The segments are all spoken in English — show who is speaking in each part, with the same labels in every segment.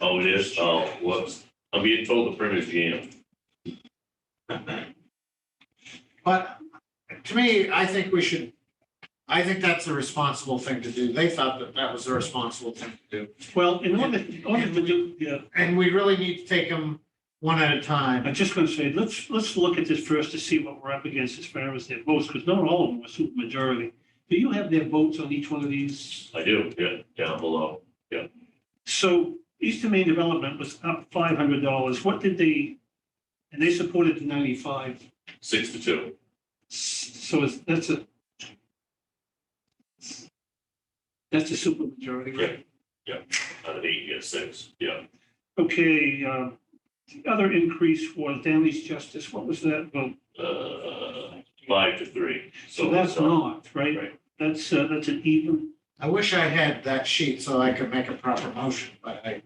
Speaker 1: Oh, it is? Oh, whoops. I'm being told the print is jammed.
Speaker 2: But to me, I think we should, I think that's the responsible thing to do. They thought that that was the responsible thing to do.
Speaker 3: Well, in order, in order to do, yeah,
Speaker 2: And we really need to take them one at a time.
Speaker 3: I'm just gonna say, let's, let's look at this first to see what we're up against as far as their votes, because not all of them were super majority. Do you have their votes on each one of these?
Speaker 1: I do, yeah, down below.
Speaker 3: So Eastern Maine Development was up five hundred dollars. What did they? And they supported the ninety-five,
Speaker 1: Six to two.
Speaker 3: so it's, that's a. That's a super majority, right?
Speaker 1: Out of eight, you get six. Yeah.
Speaker 3: Okay, uh, the other increase was Downey's Justice. What was that vote?
Speaker 1: Uh, five to three.
Speaker 3: So that's
Speaker 1: uh,
Speaker 3: not, right?
Speaker 1: Right.
Speaker 3: That's, uh, that's an even.
Speaker 2: I wish I had that sheet so I could make a proper motion, but I,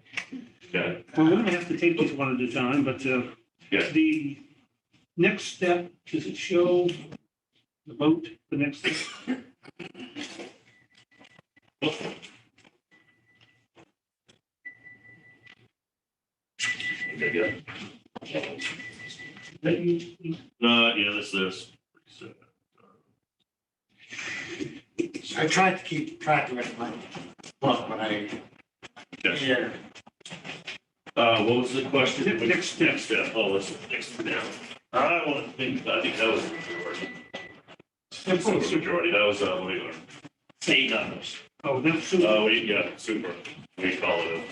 Speaker 1: Yeah,
Speaker 3: Well, we're gonna have to take these one at a time, but, uh,
Speaker 1: Yeah.
Speaker 3: the next step, does it show the vote, the next? step?
Speaker 1: yeah, yeah. No, yeah, that's this.
Speaker 2: I tried to keep track of it in my book, but I.
Speaker 1: Yeah. Uh, what was the question?
Speaker 3: Ne- next step.
Speaker 1: Next step. Oh, that's next step now. I want to think, I think that was the majority. That was the majority. That was, uh, what do you want? Eight numbers.
Speaker 3: Oh, that's, super.
Speaker 1: Oh, yeah, super. We call it.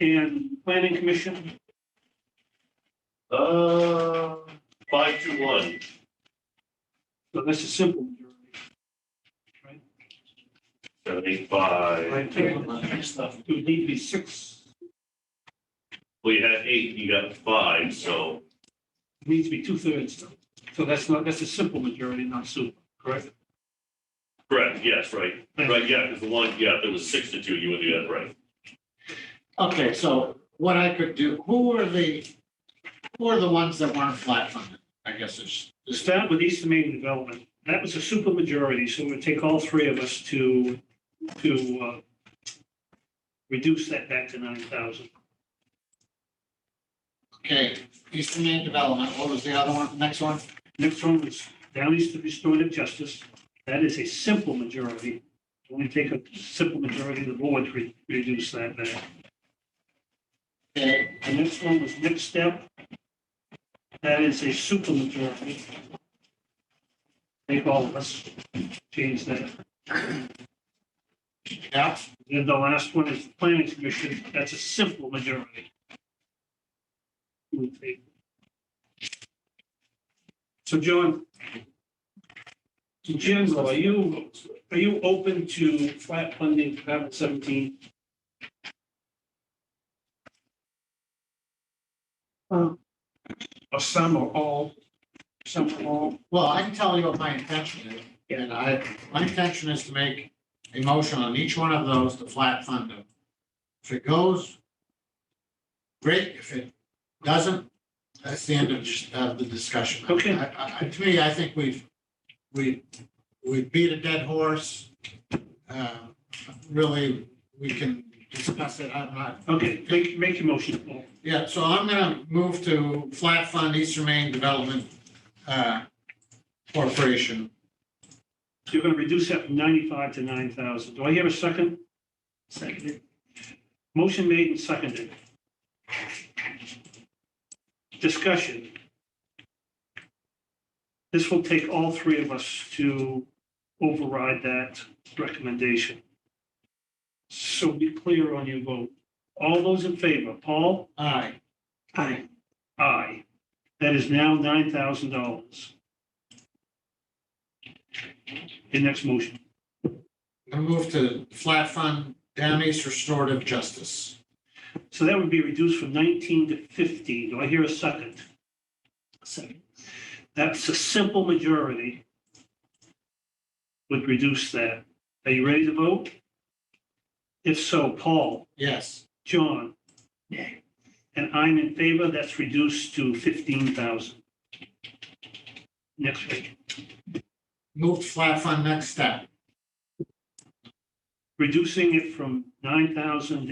Speaker 3: and planning commission,
Speaker 1: a- Uh, five to one.
Speaker 3: so that's a simple majority.
Speaker 1: Seven, eight, five.
Speaker 3: Right, take one. It would need to be six,
Speaker 1: Well, you had eight, you got five, so,
Speaker 3: it needs to be two thirds, though. so that's not, that's a simple majority, not super, correct?
Speaker 1: correct, yes, right. Right, yeah, because the one, yeah, if it was six to two, you would do that, right?
Speaker 2: Okay, so what I could do, who are the, who are the ones that weren't flat funded? I guess it's, it's
Speaker 3: Start with Eastern Maine Development, that was a super majority, so it would take all three of us to, to, uh, reduce that back to nine thousand.
Speaker 2: Okay, Eastern Maine Development, what was the other one, next one?
Speaker 3: Next one was Downey's to Restorative Justice. That is a simple majority. Only take a simple majority of the board to re- reduce that there.
Speaker 2: Okay,
Speaker 3: The next one was Next Step. That is a super majority. Take all of us, change that.
Speaker 2: yeah,
Speaker 3: Then the last one is the Planning Commission. That's a simple majority. We'll take- So John, in general, are you, are you open to flat funding for Department 17? Or some or all, some or all?
Speaker 2: well, I can tell you what my intention is. And I, my intention is to make a motion on each one of those to flat fund them. If it goes, great, if it doesn't, that's the end of, dis- of the discussion.
Speaker 3: Okay.
Speaker 2: I- I, I, to me, I think we've, we, we beat a dead horse. Uh, Really, we can discuss it, I'm not
Speaker 3: Okay, make, make your motion, Paul.
Speaker 2: Yeah, so I'm gonna move to flat fund Eastern Maine Development uh, Corporation.
Speaker 3: You're going to reduce that from 95 to 9,000. Do I hear a second? Seconded. Motion made and seconded. Discussion. This will take all three of us to override that recommendation. So be clear on your vote. All those in favor, Paul?
Speaker 2: Aye.
Speaker 3: Aye. Aye. That is now $9,000. Your next motion.
Speaker 2: I move to flat fund Down East Restorative Justice.
Speaker 3: So that would be reduced from 19 to 15. Do I hear a second? Second. That's a simple majority would reduce that. Are you ready to vote? If so, Paul,
Speaker 2: Yes.
Speaker 3: John? Nay. And I'm in favor. That's reduced to 15,000. Next week.
Speaker 2: Move to flat fund Next Step.
Speaker 3: Reducing it from 9,000